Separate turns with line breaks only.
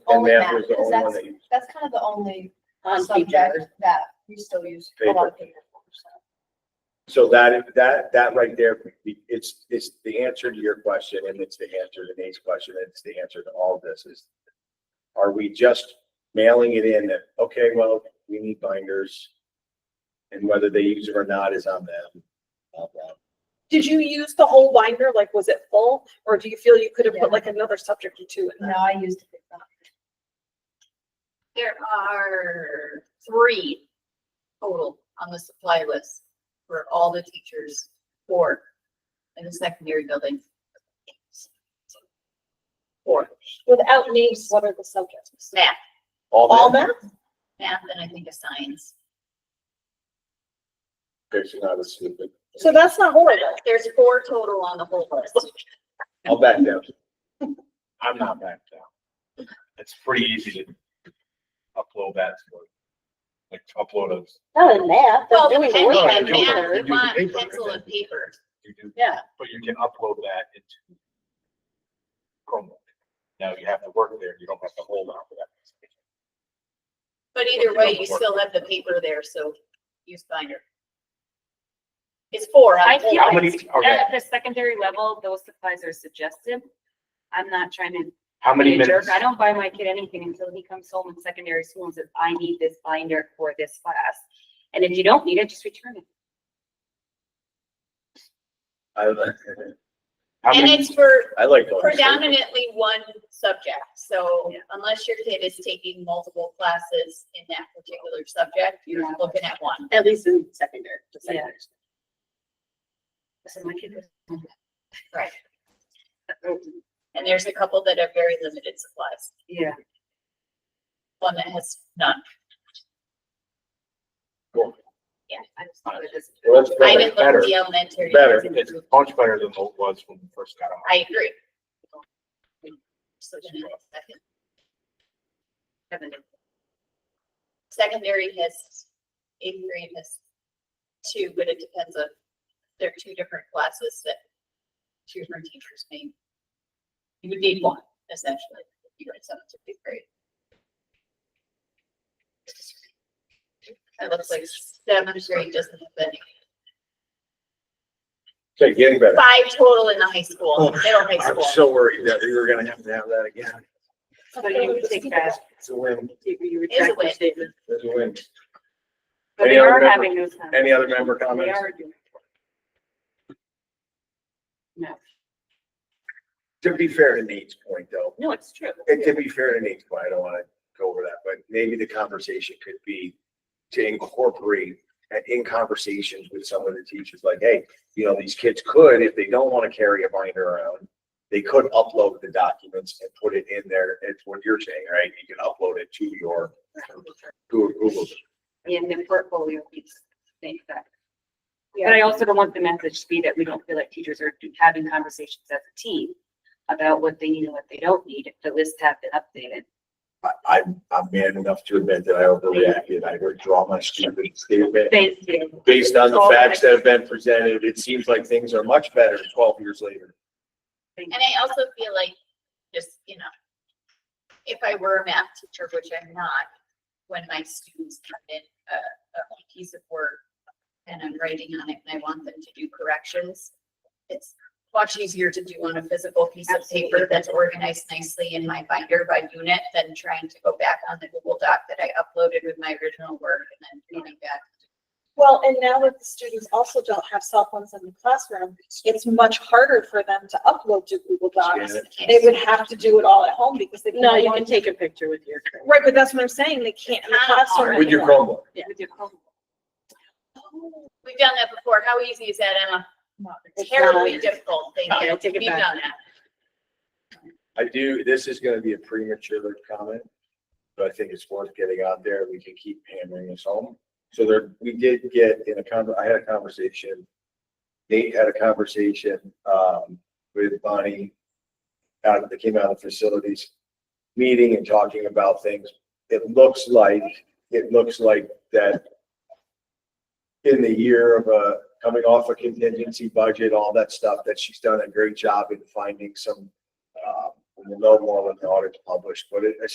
And
only
math
Oh, math,
was the
because
only one
that's,
that you,
that's kind of the only
on
subject
teacher.
that we still use a lot of paper for, so.
so that, that, that right there, it's, it's the answer to your question and it's the answer to Nate's question. and It's the answer to all this is, are we just mailing it in that, okay, well, we need binders? And whether they use it or not is on them. blah, blah.
Did you use the whole binder? Like, was it full? Or do you feel you could have
Yeah.
put like another subject or two
No,
in there?
I used it.
There are three total on the supply list for all the teachers, four in the secondary building. Four,
Without names, what are the subjects?
math,
All
All that,
math?
math, and I think a science.
there's not a stupid.
So that's not horrible.
There's four total on the whole list.
I'll back down. I'm not back down. It's pretty easy to upload that to it. Like upload a,
Not in math.
Well,
they're doing
depending
it.
on
you do-
math,
you
you
do
want
paper,
pencil
right?
and paper.
you do,
Yeah,
but you can upload that into Chromebook. Now you have to work there. You don't have to hold on for that.
But either way, you still have the paper there, so use binder. It's four. on
I
the whole
feel
How
list.
many,
like
okay,
at the secondary level, those supplies are suggested. I'm not trying to
how many
be a jerk.
minutes?
I don't buy my kid anything until he comes home in secondary school and says, I need this binder for this class. And if you don't need it, just return it.
I like- How
And
many,
it's for
I like. going straight.
predominantly one subject, so
Yeah.
unless your kid is taking multiple classes in that particular subject, you're
Yeah.
looking at one.
At least in secondary. the
Yeah.
secondary.
So my kid was-
Right. And there's a couple that have very limited supplies,
Yeah.
one that has none.
Cool.
Yeah, I just thought it was-
Well,
I
that's better.
didn't look at the elementary.
Better,
ones.
it's much better than what it was when we first got on.
I agree. So then it's second- Secondary has, eighth grade has two, but it depends on, there are two different classes that two different teachers may. You would need one essentially, if you went seventh to eighth grade. It looks like seventh grade doesn't have any,
Okay, getting better.
five total in the high school, middle high
I'm
school.
so worried that we were gonna have to have that again.
So you would take that,
It's a win.
You- You
Is a
retract your
win.
statement.
It's a win.
but
Any
we
other
are
member-
having those. times.
Any other member
We
comments?
are doing. No,
To be fair to Nate's point though,
no, it's true.
and to be fair to Nate's point, I don't wanna go over that, but maybe the conversation could be to incorporate and in conversations with some of the teachers, like, hey, you know, these kids could, if they don't wanna carry a binder around, they could upload the documents and put it in there. It's what you're saying, right? You can upload it to your, to a Google.
in the portfolio piece, think that. But I also don't want the message to be that we don't feel like teachers are having conversations as a team about what they need and what they don't need, if the lists have been updated.
I, I, I'm man enough to admit that I overreacted. I withdraw my stupid statement.
Thank you.
based on the facts that have been presented, it seems like things are much better twelve years later.
Thank
And I also feel like, just, you know, if I were a math teacher, which I'm not, when my students come in a, a piece of work and I'm writing on it and I want them to do corrections, it's much easier to do on a physical piece of paper
Absolutely.
that's organized nicely in my binder by unit than trying to go back on the Google Doc that I uploaded with my original work and then going back.
Well, and now that the students also don't have cell phones in the classroom, it's much harder for them to upload to Google Docs. They would have to do it all at home because they.
No, you can take a picture with your.
Right, but that's what I'm saying. They can't in the classroom.
With your
anymore.
Chromebook,
you. With your homework.
We've done that before. How easy is that, Emma?
It's
Terribly
not-
difficult. Thank
Okay,
you.
I take it
We've
back.
done that.
I do, this is gonna be a premature comment, but I think it's worth getting out there. We can keep hammering this home. So there, we did get in a con, I had a conversation. Nate had a conversation, um, with Bonnie out of, that came out of facilities meeting and talking about things. It looks like, it looks like that in the year of uh coming off a contingency budget, all that stuff, that she's Um, done a great job in finding some, uh, we'll know more when the audit's published, but it,